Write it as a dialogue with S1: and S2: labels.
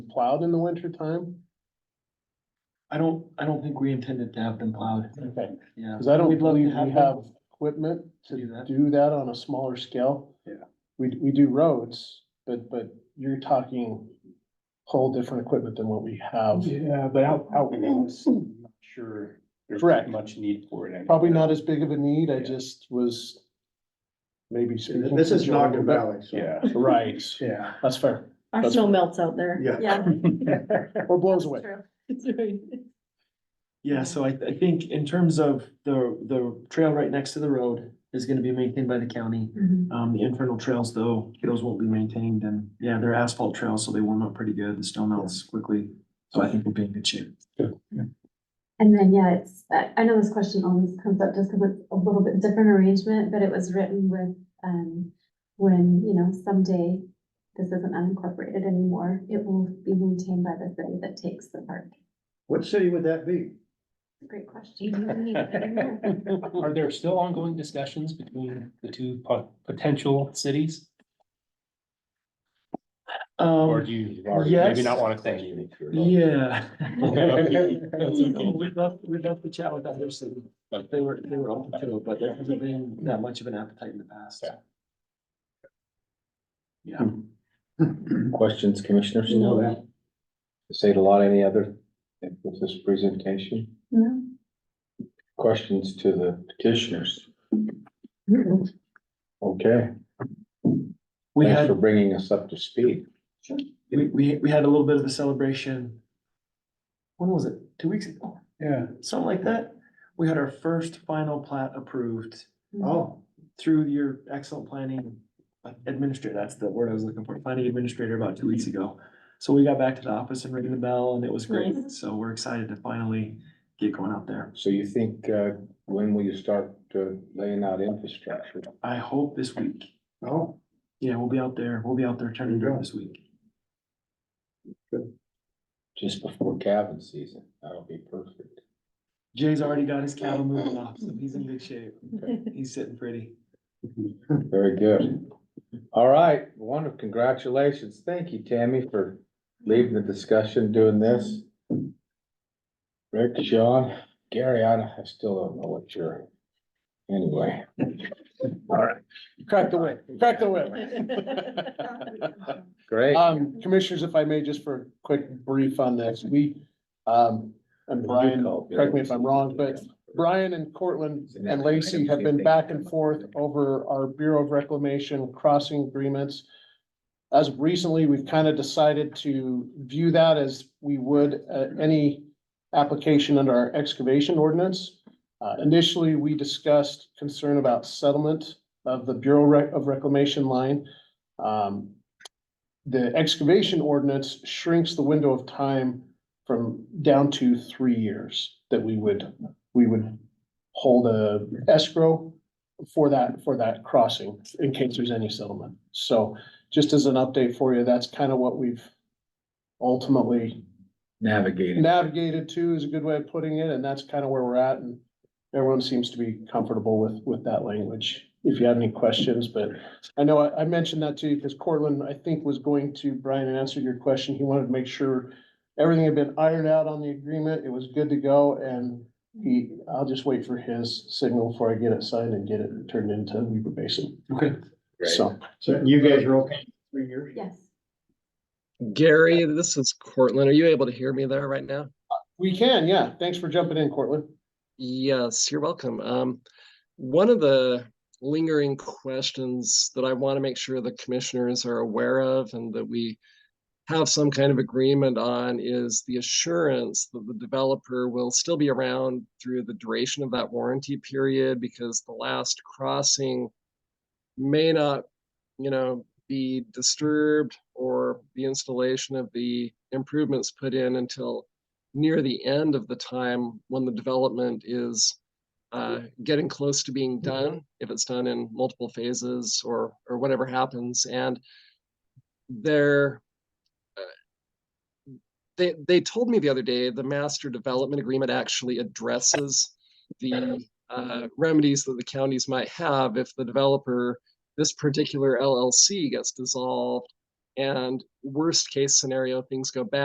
S1: plowed in the winter time?
S2: I don't, I don't think we intended to have them plowed,
S1: Okay.
S2: yeah.
S1: Cause I don't
S2: We'd love to
S1: believe we
S2: them.
S1: have equipment to
S2: do that.
S1: do that on a smaller scale.
S2: Yeah.
S1: We, we do roads, but, but you're talking whole different equipment than what we have.
S3: Yeah, but out, out
S4: Mm-hmm.
S3: west, I'm not sure there's
S1: Correct.
S3: much need for it. anymore.
S1: Probably not as big of a need, I
S3: Yeah.
S1: just was maybe. speaking
S5: This is
S1: for Joe a little
S5: Naga
S1: bit.
S5: Valley, so.
S3: Yeah,
S1: Right,
S5: Yeah.
S1: that's fair,
S6: Our
S1: That's-
S6: snow melts out there.
S5: Yeah.
S6: Yeah.
S1: or blows away.
S6: It's right.
S2: Yeah, so I, I think in terms of the, the trail right next to the road is gonna be maintained by the county.
S7: Mm-hmm.
S6: Mhm.
S2: Um, the internal trails though, those won't be maintained and, yeah, they're asphalt trails, so they warm up pretty good, the snow melts quickly. So I think we'll be in good shape.
S7: And then, yeah, it's, I, I know this question always comes up just because it's a little bit different arrangement, but it was written with, um, when, you know, someday this isn't unincorporated anymore, it will be maintained by the city that takes the park.
S5: What city would that be?
S7: Great question.
S8: Are there still ongoing discussions between the two po- potential cities? Or
S2: Um,
S8: do you maybe not
S2: yes.
S8: want to say anything?
S2: yeah.
S8: okay.
S2: We'd love, we'd love to chat with other cities. They were, they were open to it, but there hasn't been that much of an appetite in the past.
S8: Yeah.
S2: Yeah.
S4: Questions, commissioners?
S6: No.
S4: Say it a lot, any other, with this presentation?
S7: No.
S4: Questions to the petitioners? Okay,
S2: We
S4: thanks
S2: had.
S4: for bringing us up to speed.
S2: We, we, we had a little bit of a celebration. When was it? Two weeks ago,
S5: Yeah.
S2: something like that. We had our first final plat approved
S5: Oh,
S2: through your excellent planning administrator. That's the word I was looking for, planning administrator about two weeks ago. So we got back to the office and ringing the bell and it was great.
S6: Nice.
S2: So we're excited to finally get going out there.
S4: So you think, uh, when will you start uh, laying out infrastructure?
S2: I hope this week.
S5: oh,
S2: Yeah, we'll be out there. We'll be out there turning it
S5: There you
S2: around
S5: go.
S2: this week.
S4: Just before calving season, that'll be perfect.
S2: Jay's already got his cattle moving off, so he's in good shape. He's sitting pretty.
S4: Very good. All right, wonderful, congratulations. Thank you, Tammy, for leading the discussion, doing this. Rick, Sean, Gary, I don't- I still don't know what you're, anyway. All right,
S1: Crack the whip, crack the whip.
S4: great.
S1: Um, commissioners, if I may, just for a quick brief on this, we, um, and Brian, correct me if I'm wrong, but Brian and Cortland and Lacy have been back and forth over our Bureau of Reclamation crossing agreements. As of recently, we've kind of decided to view that as we would uh, any application under our excavation ordinance. Uh, Initially, we discussed concern about settlement of the Bureau Rec- of Reclamation line. Um, The excavation ordinance shrinks the window of time from down to three years that we would, we would hold a escrow for that, for that crossing in case there's any settlement. So just as an update for you, that's kind of what we've ultimately
S4: Navigating.
S1: navigated to is a good way of putting it, and that's kind of where we're at. And everyone seems to be comfortable with, with that language. If you have any questions, but I know I, I mentioned that to you because Cortland, I think, was going to, Brian, and answer your question. He wanted to make sure everything had been ironed out on the agreement. It was good to go and he, I'll just wait for his signal before I get it signed and get it turned into Weaver Basin.
S2: Okay.
S1: So,
S5: so you guys are okay, three years?
S7: Yes.
S9: Gary, this is Cortland. Are you able to hear me there right now?
S1: we can, yeah. Thanks for jumping in, Cortland.
S9: Yes, you're welcome. Um, one of the lingering questions that I want to make sure the commissioners are aware of and that we have some kind of agreement on is the assurance that the developer will still be around through the duration of that warranty period because the last crossing may not, you know, be disturbed or the installation of the improvements put in until near the end of the time when the development is uh, getting close to being done, if it's done in multiple phases or or whatever happens, and there, uh, they they told me the other day the master development agreement actually addresses the uh, remedies that the counties might have if the developer, this particular LLC gets dissolved, and worst case scenario, things go bad.